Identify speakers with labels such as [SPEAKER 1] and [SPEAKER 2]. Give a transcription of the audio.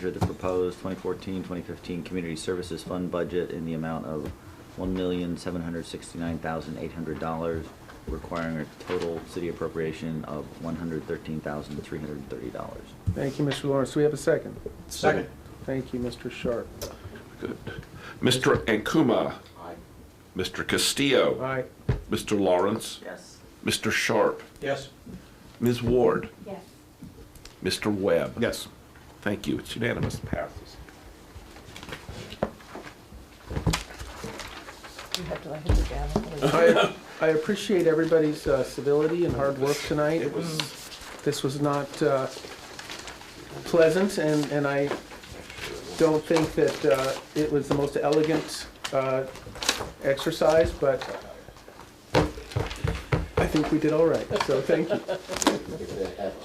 [SPEAKER 1] the proposed 2014-2015 Community Services Fund budget in the amount of $1,769,800, requiring a total city appropriation of $113,330.
[SPEAKER 2] Thank you, Mr. Lawrence. Do we have a second?
[SPEAKER 3] Second.
[SPEAKER 2] Thank you, Mr. Sharp.
[SPEAKER 4] Good. Mr. Ankuma. Mr. Castillo.
[SPEAKER 2] Aye.
[SPEAKER 4] Mr. Lawrence.
[SPEAKER 1] Yes.
[SPEAKER 4] Mr. Sharp.
[SPEAKER 3] Yes.
[SPEAKER 4] Ms. Ward.
[SPEAKER 5] Yes.
[SPEAKER 4] Mr. Webb.
[SPEAKER 3] Yes.
[SPEAKER 4] Thank you. It's unanimous. Passes.
[SPEAKER 5] You have to let him down.
[SPEAKER 2] I I appreciate everybody's uh, civility and hard work tonight.
[SPEAKER 4] It was,
[SPEAKER 2] This was not uh, pleasant, and, and I don't think that uh, it was the most elegant uh, exercise, but I think we did all right, so thank you.